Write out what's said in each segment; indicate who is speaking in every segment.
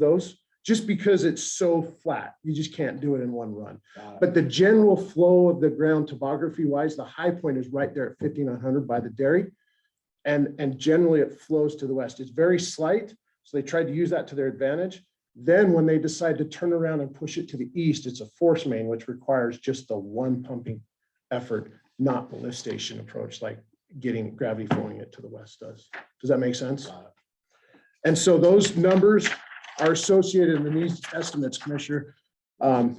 Speaker 1: those, just because it's so flat, you just can't do it in one run.
Speaker 2: Got it.
Speaker 1: But the general flow of the ground topography wise, the high point is right there at fifty-nine hundred by the dairy. And, and generally it flows to the west. It's very slight, so they tried to use that to their advantage. Then when they decide to turn around and push it to the east, it's a force main, which requires just the one pumping effort, not the lift station approach, like getting gravity flowing it to the west does. Does that make sense?
Speaker 2: Got it.
Speaker 1: And so those numbers are associated in these estimates, Commissioner. Um,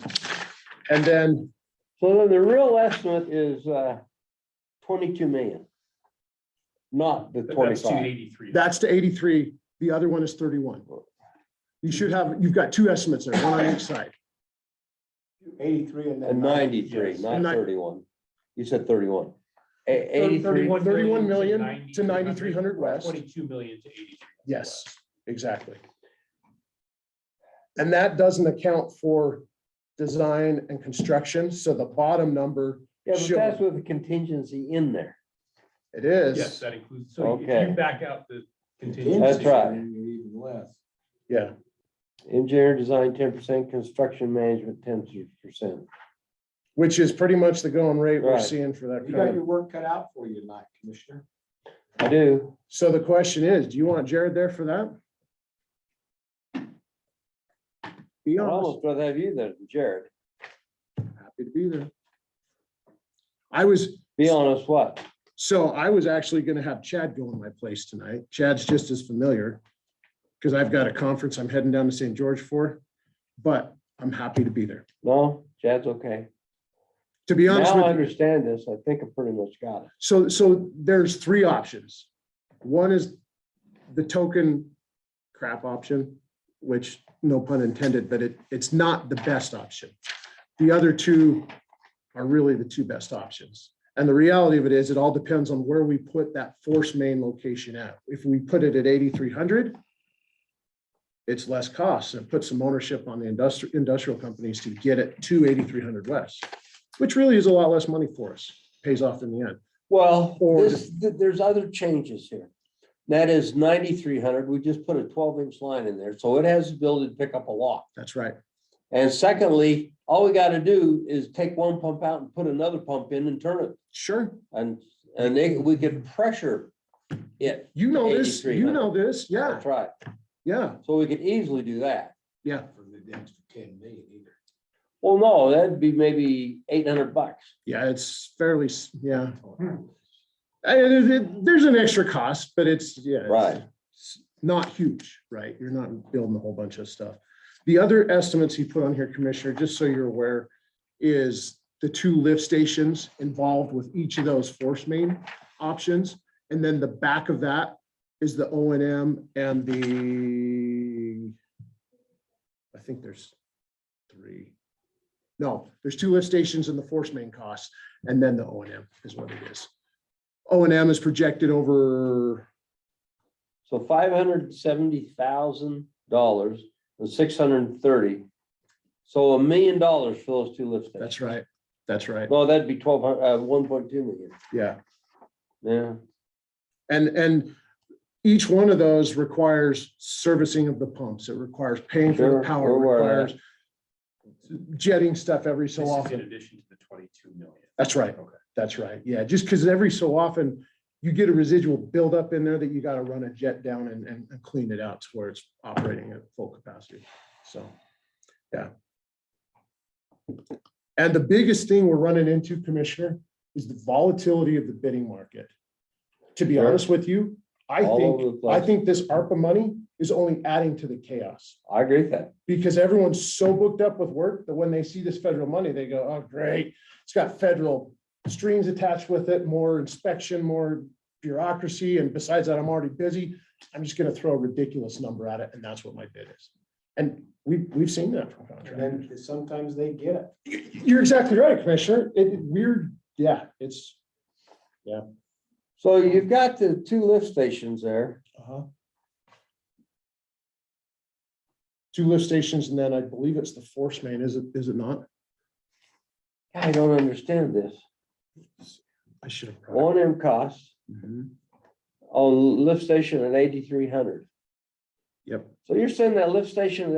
Speaker 1: And then
Speaker 3: So then the real estimate is uh, twenty-two million. Not the
Speaker 2: That's two
Speaker 3: twenty-five.
Speaker 2: eighty-three.
Speaker 1: that's to eighty-three, the other one is thirty-one. You should have, you've got two estimates there, one on each side.
Speaker 2: Eighty-three and
Speaker 3: And ninety-three, not
Speaker 1: And nine-
Speaker 3: thirty-one. You said thirty-one. A- Eighty-three,
Speaker 1: 31 million to 9300 west.
Speaker 2: Twenty-two million to eighty-three.
Speaker 1: Yes, exactly. And that doesn't account for design and construction, so the bottom number,
Speaker 3: yeah, but
Speaker 1: Sure.
Speaker 3: that's with the contingency in there.
Speaker 1: it
Speaker 2: Yes,
Speaker 1: is,
Speaker 2: that includes, so if
Speaker 3: Okay.
Speaker 2: you back out the contingency.
Speaker 3: That's right.
Speaker 4: Even less.
Speaker 1: yeah,
Speaker 3: Engineer design ten percent, construction management ten percent.
Speaker 1: which is pretty much the going rate we're
Speaker 3: Right.
Speaker 1: seeing for that.
Speaker 4: You got
Speaker 1: kind
Speaker 4: your
Speaker 1: of-
Speaker 4: work cut out for you tonight, Commissioner.
Speaker 3: I do.
Speaker 1: So the question is, do you want Jared there for that? Be
Speaker 3: I'd
Speaker 1: honest.
Speaker 3: almost rather have you than Jared.
Speaker 1: Happy to be there. I was,
Speaker 3: Be honest, what?
Speaker 1: so I was actually gonna have Chad go in my place tonight. Chad's just as familiar. Cause I've got a conference I'm heading down to St. George for, but I'm happy to be there.
Speaker 3: No, Chad's okay.
Speaker 1: To be honest
Speaker 3: Now
Speaker 1: with
Speaker 3: I
Speaker 1: you,
Speaker 3: understand this. I think I pretty much got it.
Speaker 1: so, so there's three options. One is the token crap option, which no pun intended, but it, it's not the best option. The other two are really the two best options. And the reality of it is, it all depends on where we put that force main location at. If we put it at eighty-three hundred, it's less cost and it puts some ownership on the industrial, industrial companies to get it to eighty-three hundred west, which really is a lot less money for us, pays off in the end.
Speaker 3: Well,
Speaker 1: Or-
Speaker 3: this, th- there's other changes here. That is ninety-three hundred, we just put a twelve-inch line in there, so it has the ability to pick up a lot.
Speaker 1: That's right.
Speaker 3: And secondly, all we gotta do is take one pump out and put another pump in and turn it,
Speaker 1: Sure.
Speaker 3: and, and they- we could pressure it,
Speaker 1: You know this,
Speaker 3: 83,
Speaker 1: you
Speaker 3: huh?
Speaker 1: know this. Yeah,
Speaker 3: that's right,
Speaker 1: yeah,
Speaker 3: so we could easily do that.
Speaker 1: yeah.
Speaker 4: For the extra ten million either.
Speaker 3: Well, no, that'd be maybe eight hundred bucks.
Speaker 1: Yeah, it's fairly, s- yeah.
Speaker 4: Hmm.
Speaker 1: I- it- it- There's an extra cost, but it's, yeah. it's-
Speaker 3: Right.
Speaker 1: it's Not huge, right? You're not building a whole bunch of stuff. The other estimates he put on here, Commissioner, just so you're aware, is the two lift stations involved with each of those force main options. And then the back of that is the O and M and the, I think there's three. No, there's two lift stations and the force main costs, and then the O and M is what it is. O and M is projected over,
Speaker 3: So five hundred seventy thousand dollars and six hundred and thirty. So a million dollars for those two lift stations.
Speaker 1: that's right, that's right,
Speaker 3: No, that'd be twelve hundred, uh, one point two million,
Speaker 1: yeah.
Speaker 3: yeah.
Speaker 1: And, and each one of those requires servicing of the pumps. It requires paying for the
Speaker 3: Sure,
Speaker 1: power,
Speaker 3: we're aware of
Speaker 1: requires jetting stuff every so
Speaker 2: This is in
Speaker 1: often.
Speaker 2: addition to the twenty-two million.
Speaker 1: That's right,
Speaker 2: Okay.
Speaker 1: that's right. Yeah, just because every so often you get a residual buildup in there that you got to run a jet down and, and and clean it out to where it's operating at full capacity. So, yeah. And the biggest thing we're running into, Commissioner, is the volatility of the bidding market. To be
Speaker 3: Sure.
Speaker 1: honest with you, I
Speaker 3: All
Speaker 1: think,
Speaker 3: over the
Speaker 1: I
Speaker 3: place.
Speaker 1: think this ARPA money is only adding to the chaos
Speaker 3: I agree with that.
Speaker 1: because everyone's so booked up with work that when they see this federal money, they go, oh, great. It's got federal strings attached with it, more inspection, more bureaucracy. And besides that, I'm already busy. I'm just gonna throw a ridiculous number at it and that's what my bid is. And we, we've seen that from
Speaker 4: And
Speaker 1: contractors.
Speaker 4: then sometimes they get it.
Speaker 1: You- You're exactly right, Commissioner. It it- weird, yeah, it's,
Speaker 3: So you've got the two lift stations there,
Speaker 1: uh-huh. Two lift stations and then I believe it's the force main, is it, is it not?
Speaker 3: I don't understand this,
Speaker 1: I should have. brought it.
Speaker 3: O and M costs
Speaker 1: Mhm.
Speaker 3: on lift station at eighty-three hundred.
Speaker 1: Yep.
Speaker 3: So you're saying that lift station at